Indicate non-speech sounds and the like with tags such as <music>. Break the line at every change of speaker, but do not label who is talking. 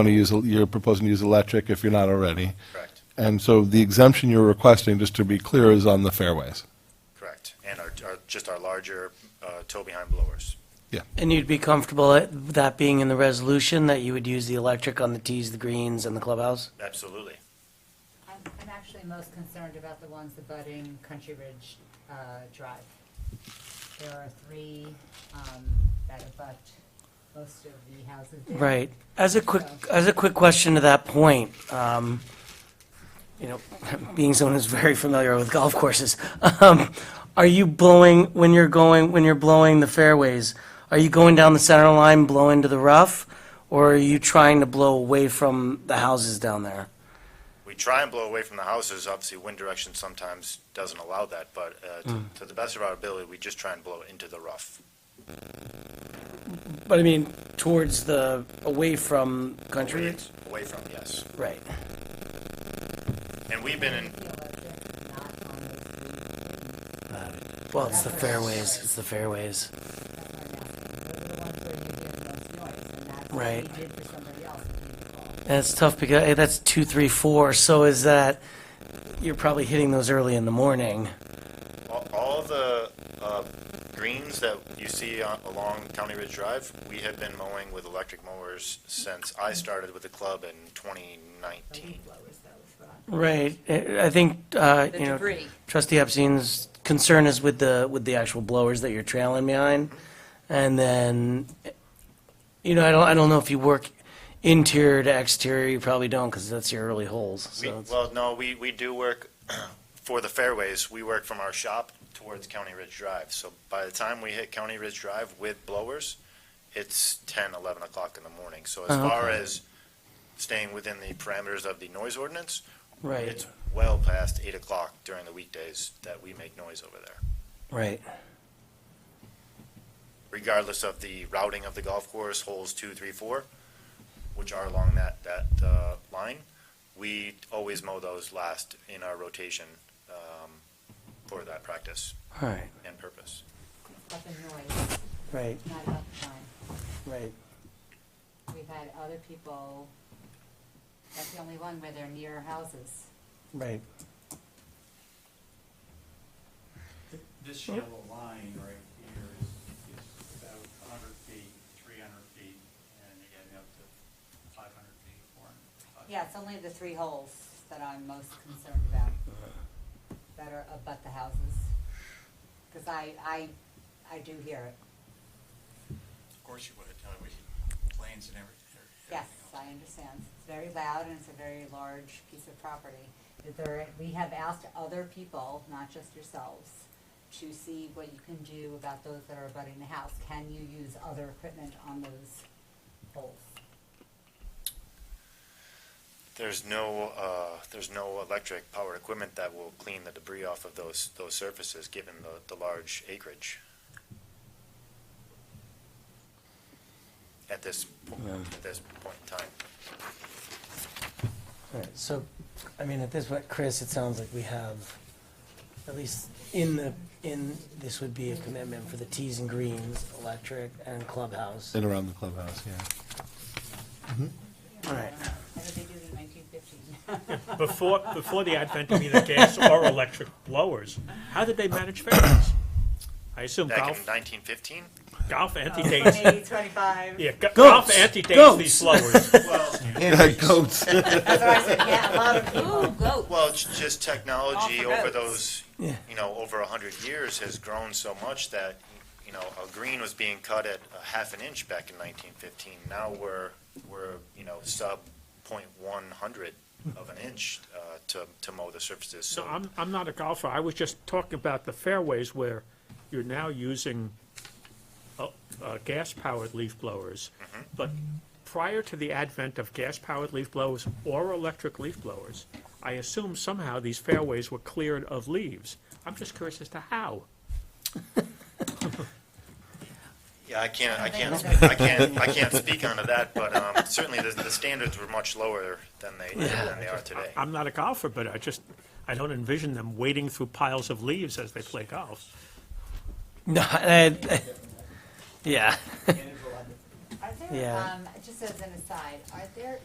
want to use, you're proposing to use electric if you're not already.
Correct,
And so the exemption you're requesting, just to be clear, is on the fairways.
correct. And our, our, just our larger, uh, tow behind blowers.
And you'd be comfortable at that being in the resolution, that you would use the electric on the tees, the greens, and the clubhouse?
Absolutely.
I'm, I'm actually most concerned about the ones abutting Country Ridge uh, Drive. There are three um, that abut most of the houses there.
Right. As a quick, as a quick question to that point, um, you know, <laughs> being someone who's very familiar with golf courses, um, are you blowing, when you're going, when you're blowing the fairways, are you going down the center line, blowing to the rough? Or are you trying to blow away from the houses down there?
We try and blow away from the houses. Obviously, wind direction sometimes doesn't allow that, but, uh, to, to the best of our ability, we just try and blow it into the rough.
But I mean, towards the, away from Country Ridge?
Away from, yes.
Right.
And we've been in,
The electric, not on the
Well, it's the fairways, it's the fairways. Right.
We did for somebody else.
And it's tough because eh, that's two, three, four, so is that, you're probably hitting those early in the morning.
all, all the, uh, greens that you see on, along County Ridge Drive, we have been mowing with electric mowers since I started with the club in twenty nineteen.
Blowers, though, is
Right, eh, I think, uh,
The
you know,
debris.
trustee Epstein's concern is with the, with the actual blowers that you're trailing behind. And then, eh, you know, I don't, I don't know if you work interior to exterior, you probably don't, because that's your early holes,
We,
so. it's-
well, no, we, we do work, <clears throat> for the fairways, we work from our shop towards County Ridge Drive. So by the time we hit County Ridge Drive with blowers, it's 10, 11 o'clock in the morning. So as
Oh,
far as staying within the parameters of the noise ordinance,
Right,
it's well past 8 o'clock during the weekdays that we make noise over there,
right,
regardless of the routing of the golf course, holes two, three, four, which are along that, that uh, line. We always mow those last in our rotation um, for that practice
all right,
and purpose.
about the noise,
right,
not about the time.
right.
We've had other people, that's the only one where they're near houses.
Right.
This yellow line right here is, is about a hundred feet, three hundred feet, and again, up to five hundred feet, four hundred.
Yeah, it's only the three holes that I'm most concerned about, that are abut the houses. Because I, I, I do hear it.
Of course you would, uh, we, planes and every- everything.
Yes,
else.
I understand. It's very loud and it's a very large piece of property. Is There, we have asked other people, not just yourselves, to see what you can do about those that are abutting the house. Can you use other equipment on those holes?
There's no, uh, there's no electric powered equipment that will clean the debris off of those, those surfaces, given the, the large acreage. At this, po- at this point in time.
All right, so, I mean, at this point, Chris, it sounds like we have, at least in the, in, this would be a commitment for the tees and greens, electric and clubhouse.
And around the clubhouse, yeah. <laughs>
All right.
How did they do it in nineteen fifteen?
Before, before the advent of either gas or electric blowers, how did they manage fairways? I assume
Back in
golf,
nineteen fifteen,
<laughs>
golf antedates,
twenty-five.
yeah, go- golf
Goats.
antedates
Goats.
these
<laughs>
blowers.
Goats.
That's what I said, yeah, a lot of people.
well, it's just technology
All for
over
goats.
those,
Yeah.
you know, over a hundred years has grown so much that, you know, a green was being cut at a half an inch back in nineteen fifteen. Now we're, we're, you know, sub point one hundred of an inch, uh, to, to mow the surfaces,
So
so.
I'm, I'm not a golfer, I was just talking about the fairways where you're now using uh, uh, gas-powered leaf blowers. But prior to the advent of gas-powered leaf blowers or electric leaf blowers, I assume somehow these fairways were cleared of leaves. I'm just curious as to how.
Yeah, I can't, I can't, speak- I can't, I can't speak onto that, but, um, certainly the, the standards were much lower than they, than they are today.
I'm not a golfer, but I just, I don't envision them wading through piles of leaves as they play golf.
No, <laughs> I- I- yeah.
Are there,
Yeah.
um, just as an aside, are there